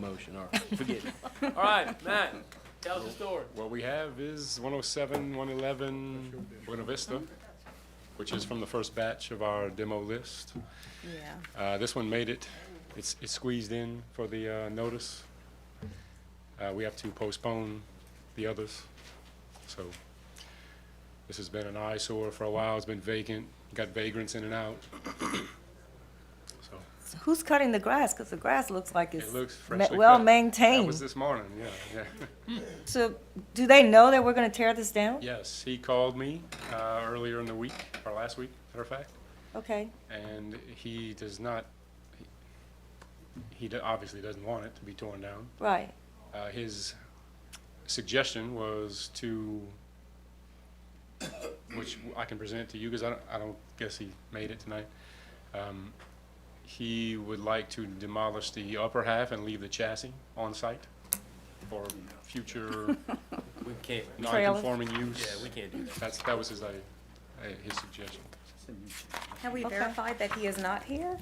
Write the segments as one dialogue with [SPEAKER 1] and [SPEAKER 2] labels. [SPEAKER 1] motion, all right, forget it.
[SPEAKER 2] All right, Matt, tell us the story.
[SPEAKER 3] What we have is 107, 111 Buena Vista, which is from the first batch of our demo list.
[SPEAKER 4] Yeah.
[SPEAKER 3] Uh, This one made it, it's it's squeezed in for the uh, notice. Uh, We have to postpone the others, so this has been an eyesore for a while, it's been vacant, got vagrants in and out. So
[SPEAKER 4] So who's cutting the grass? Because the grass looks like it's
[SPEAKER 3] It looks
[SPEAKER 4] ma-
[SPEAKER 3] freshly cut.
[SPEAKER 4] well
[SPEAKER 3] That was
[SPEAKER 4] maintained.
[SPEAKER 3] this morning, yeah, yeah.
[SPEAKER 4] So do they know that we're going to tear this down?
[SPEAKER 3] Yes, he called me uh, earlier in the week, or last week, matter of fact,
[SPEAKER 4] Okay.
[SPEAKER 3] and he does not, he- he do- obviously doesn't want it to be torn down.
[SPEAKER 4] Right.
[SPEAKER 3] Uh, His suggestion was to, which I can present to you, because I don't, I don't guess he made it tonight. Um, He would like to demolish the upper half and leave the chassis on site for future
[SPEAKER 2] We can't,
[SPEAKER 3] non-conforming use.
[SPEAKER 2] yeah, we can't do that.
[SPEAKER 3] That's, that was his, uh, uh, his suggestion.
[SPEAKER 5] Have we
[SPEAKER 4] Okay.
[SPEAKER 5] verified that he is not here,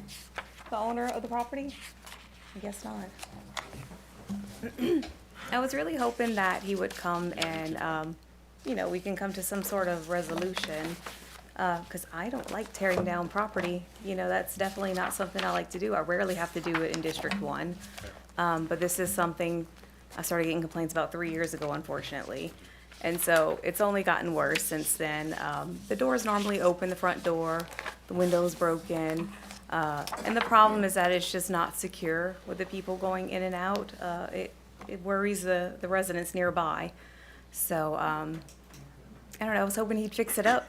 [SPEAKER 5] the owner of the property? I guess not. I was really hoping that he would come and, um, you know, we can come to some sort of resolution. Uh, cause I don't like tearing down property, you know, that's definitely not something I like to do. I rarely have to do it in District One. Um, but this is something, I started getting complaints about three years ago, unfortunately. And so it's only gotten worse since then. Um, the door's normally open, the front door, the window's broken. Uh, and the problem is that it's just not secure with the people going in and out. Uh, it, it worries the, the residents nearby. So, um, I don't know, I was hoping he'd fix it up,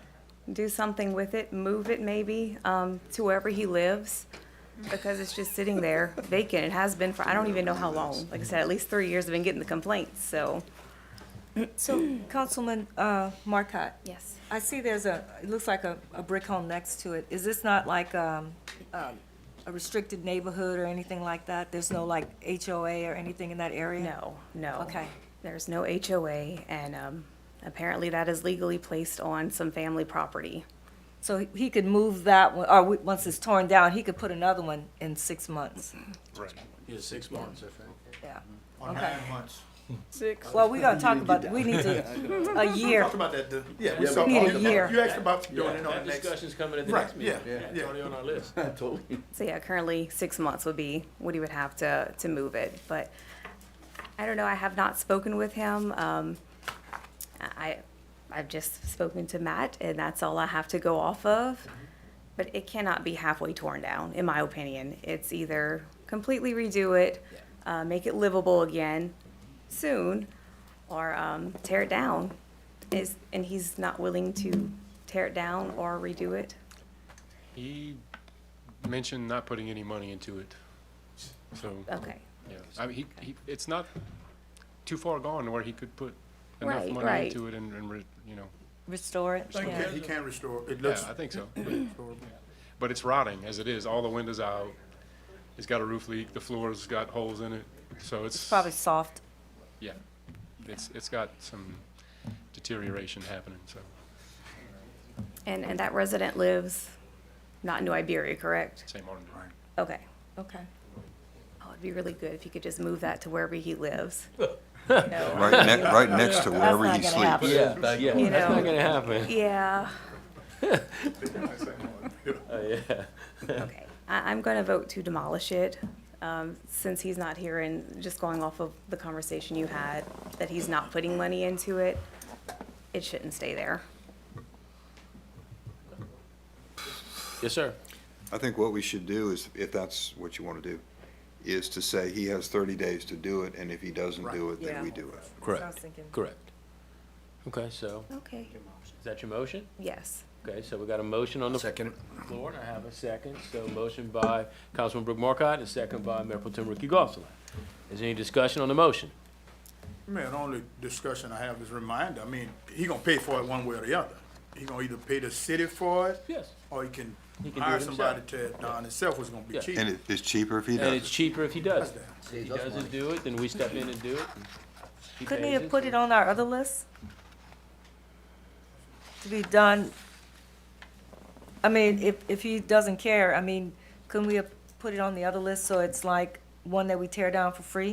[SPEAKER 5] do something with it, move it maybe, um, to wherever he lives. Because it's just sitting there vacant. It has been for, I don't even know how long. Like I said, at least three years I've been getting the complaints, so.
[SPEAKER 4] So Councilman uh, Marcotte,
[SPEAKER 5] Yes.
[SPEAKER 4] I see there's a, it looks like a, a brick home next to it. Is this not like um, um, a restricted neighborhood or anything like that? There's no like HOA or anything in that area?
[SPEAKER 5] No, no.
[SPEAKER 4] Okay.
[SPEAKER 5] There's no HOA and, um, apparently that is legally placed on some family property.
[SPEAKER 4] So he- he could move that one, or we- once it's torn down, he could put another one in six months?
[SPEAKER 3] Right.
[SPEAKER 2] Yeah, six months.
[SPEAKER 4] Yeah.
[SPEAKER 6] Or
[SPEAKER 4] Okay.
[SPEAKER 6] nine months.
[SPEAKER 4] Well, we're gonna talk about, we need to, a year.
[SPEAKER 6] Talked about that, the- yeah. we
[SPEAKER 4] Yeah,
[SPEAKER 6] saw-
[SPEAKER 4] we need a
[SPEAKER 6] talked about-
[SPEAKER 4] year.
[SPEAKER 6] You asked about doing it on
[SPEAKER 2] That
[SPEAKER 6] the next.
[SPEAKER 2] discussion's coming at the
[SPEAKER 6] Right,
[SPEAKER 2] next meeting.
[SPEAKER 6] yeah,
[SPEAKER 2] It's
[SPEAKER 6] yeah.
[SPEAKER 2] already on our list.
[SPEAKER 5] So yeah, currently six months would be what he would have to, to move it, but I don't know, I have not spoken with him. Um, I, I've just spoken to Matt and that's all I have to go off of. But it cannot be halfway torn down, in my opinion. It's either completely redo it, uh, make it livable again soon, or, um, tear it down. Is, and he's not willing to tear it down or redo it.
[SPEAKER 3] He mentioned not putting any money into it. So,
[SPEAKER 5] Okay.
[SPEAKER 3] yeah, I mean, he, he, it's not too far gone where he could put enough
[SPEAKER 5] Right,
[SPEAKER 3] money
[SPEAKER 5] right.
[SPEAKER 3] into it and, and, re- you know,
[SPEAKER 4] Restore it?
[SPEAKER 6] He
[SPEAKER 4] Yeah.
[SPEAKER 6] can't- He can't restore, it
[SPEAKER 3] yeah,
[SPEAKER 6] looks.
[SPEAKER 3] I think so. But it's rotting as it is, all the windows out, it's got a roof leak, the floor's got holes in it, so it's.
[SPEAKER 4] Probably soft.
[SPEAKER 3] Yeah, it's, it's got some deterioration happening, so.
[SPEAKER 5] And, and that resident lives not in New Iberia, correct?
[SPEAKER 3] Same order.
[SPEAKER 5] Okay.
[SPEAKER 4] Okay.
[SPEAKER 5] Oh, it'd be really good if you could just move that to wherever he lives.
[SPEAKER 7] Right, ne- right next
[SPEAKER 4] That's
[SPEAKER 7] to wherever
[SPEAKER 4] not gonna
[SPEAKER 7] he sleeps.
[SPEAKER 4] happen.
[SPEAKER 2] Yeah, yeah,
[SPEAKER 5] You that's not know.
[SPEAKER 2] gonna happen.
[SPEAKER 5] Yeah, okay. I, I'm gonna vote to demolish it, um, since he's not here and just going off of the conversation you had, that he's not putting money into it. It shouldn't stay there.
[SPEAKER 2] Yes, sir.
[SPEAKER 7] I think what we should do is, if that's what you want to do, is to say he has thirty days to do it, and if he doesn't do it,
[SPEAKER 4] Yeah.
[SPEAKER 7] then we do it.
[SPEAKER 4] I was thinking.
[SPEAKER 2] correct. Okay, so,
[SPEAKER 5] Okay.
[SPEAKER 2] is that your motion?
[SPEAKER 5] Yes.
[SPEAKER 2] Okay, so we got a motion on the floor, and I have a second. So motion by Councilman Brooke Markcott and second by Mayor Pro Tem Ricky Gosselaar. Is there any discussion on the motion?
[SPEAKER 6] Man, only discussion I have is reminder, I mean, he gonna pay for it one way or the other. He gonna either pay the city for it,
[SPEAKER 2] Yes.
[SPEAKER 6] or he can
[SPEAKER 2] He can do
[SPEAKER 6] hire
[SPEAKER 2] it
[SPEAKER 6] somebody
[SPEAKER 2] himself.
[SPEAKER 6] to, tear it down himself, it's gonna be
[SPEAKER 2] Yeah.
[SPEAKER 6] cheap.
[SPEAKER 7] And it, it's cheaper if he
[SPEAKER 2] And
[SPEAKER 7] does
[SPEAKER 2] it's
[SPEAKER 7] it.
[SPEAKER 2] cheaper if he does.
[SPEAKER 6] That's
[SPEAKER 2] If he doesn't do it, then we step in and do it. He
[SPEAKER 4] Couldn't
[SPEAKER 2] pays
[SPEAKER 4] he have put it on our other list? To be done, I mean, if, if he doesn't care, I mean, couldn't we have put it on the other list so it's like one that we tear down for free?